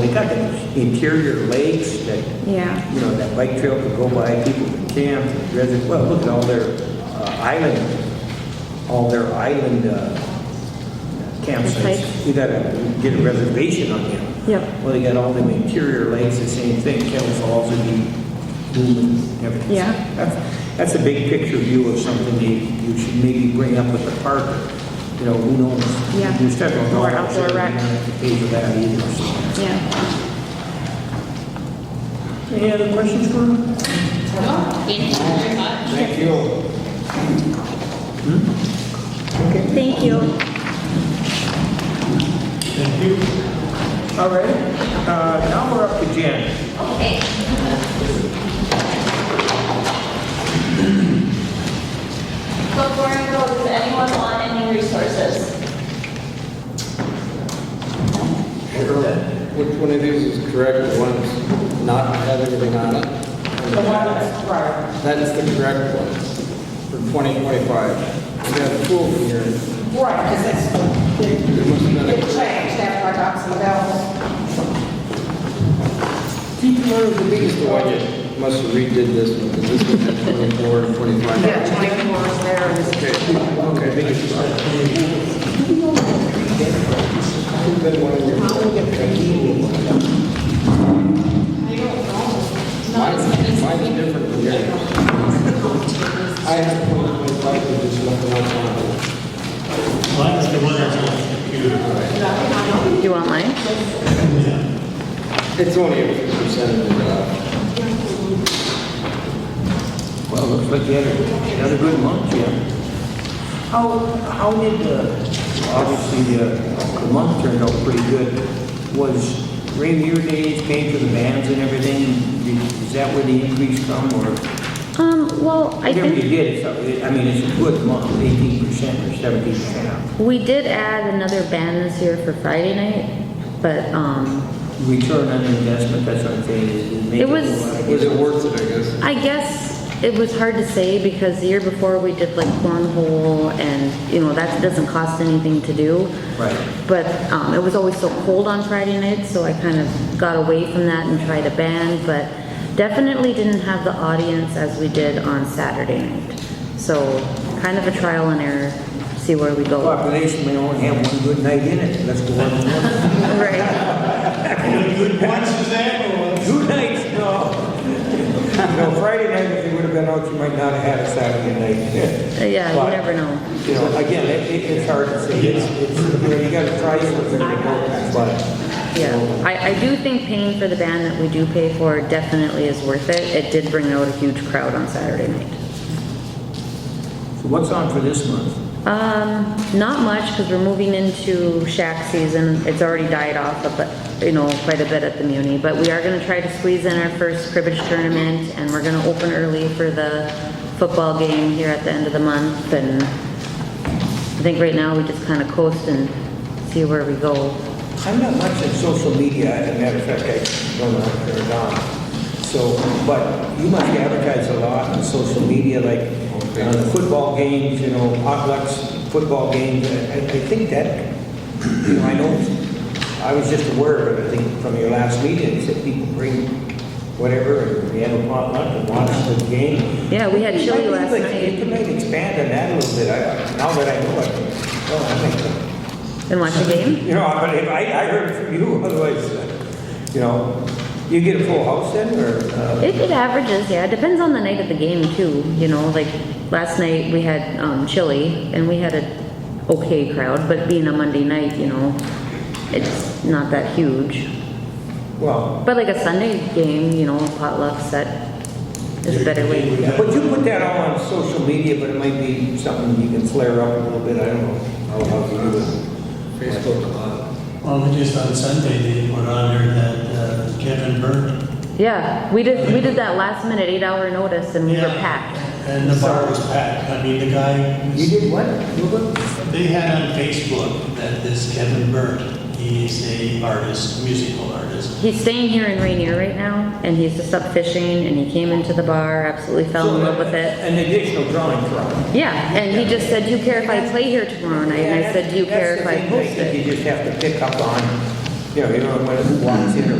protecting interior lakes that, Yeah. you know, that bike trail could go by, people could camp, residents, well, look at all their uh, island, all their island uh, Place. campsites. You gotta get a reservation on them. Yep. Well, they got all them interior lakes, the same thing, Kettle Falls would be booming, everything. Yeah. That's, that's a big picture view of something you, you should maybe bring up with the park, you know, who knows? Yeah. You start going, Or "Oh, outdoor I'm sure rec." we're not gonna pay for that either, so. Yeah. Any other questions for him? Thank you very much. Thank you. Thank you. All right, uh, now we're up to Jan. Okay. Before I go, does anyone want any resources? Which one of these is correct, the one that's not have everything on it? The one that's prior. That's the correct one for 2025. We got two over here. Right, because that's There the, must have the been a- change, that's why Dr. Bell, Keep one of the biggest one. you Must have redid this one, because this one had 24 and 25. yeah, 24 is there, and it's- Okay, okay. biggest one. Mine's mine's different from yours. I have 2025, but there's nothing else on it. Well, that's the one that's on the computer. Do you want mine? It's only a few percent of the, uh, Well, looks like you had a- another good month, Jan. How, how did, uh, obviously, uh, the month turned out pretty good. Was Rainier Days paid for the bands and everything? Did- Is that where the increase come, or? Um, well, I Whatever you think did, it's, I mean, it's a good month, eighteen percent or seventeen percent. we did add another band this year for Friday night, but, um, Return on investment, that's what I'm saying, is is maybe. It was- was it worth it, I guess? I guess it was hard to say because the year before we did like cornhole and, you know, that doesn't cost anything to do. Right. But um, it was always so cold on Friday nights, so I kind of got away from that and tried a band, but definitely didn't have the audience as we did on Saturday night. So kind of a trial and error, see where we go. Population may only have one good night in it, let's go on one. Right. Good one, Suzanne, or? Two nights, no. No, Friday night, if you would have been out, you might not have had a Saturday night. Uh, Yeah, you But, never know. You know, again, it, it- it's hard to say, it's, it's, you know, you gotta try something, but. Yeah. I, I do think paying for the band that we do pay for definitely is worth it. It did bring out a huge crowd on Saturday night. So what's on for this month? Um, not much, because we're moving into shack season. It's already died off, a bit, you know, quite a bit at the Muni. But we are gonna try to squeeze in our first cribbage tournament, and we're gonna open early for the football game here at the end of the month. And I think right now, we just kind of coast and see where we go. I'm not much in social media, as a matter of fact, I don't know if they're gone. So, but you must advertise a lot on social media, like on the football games, you know, potlucks, football games. I, I I think that, you know, I know, I was just aware of it, I think, from your last meeting, you said people bring whatever, and we have a potluck and watch the game. Yeah, we had chili last I think You night could maybe expand on that a little bit, I, now that I know it. Well, I think- and watched the game. you know, but if I, I heard from you, otherwise, uh, you know, you get a full house then, or? uh, It, it averages, yeah. It depends on the night of the game too, you know, like last night we had, um, chili and we had a okay crowd, but being a Monday night, you know, it's not that huge. Well, But like a Sunday game, you know, potluck set is a better way. yeah, but you put that all on social media, but it might be something you can flare up a little bit, I don't know. how how you do it. uh, Facebook, uh, Well, we just on Sunday, they put on there that uh, Kevin Burke. Yeah, we did, we did that last minute eight hour notice and we were packed. And the bar was packed. I mean, the guy, You was- did what? You look- they had on Facebook that this Kevin Burke, he's a artist, musical artist. He's staying here in Rainier right now and he's just up fishing and he came into the bar, absolutely fell in love with it. An additional drawing from. Yeah, and he just said, do you care if I play here tomorrow night? And I said, do you care if I post That's the thing, I it? think you just have to pick up on, you know, you don't know when who walks in or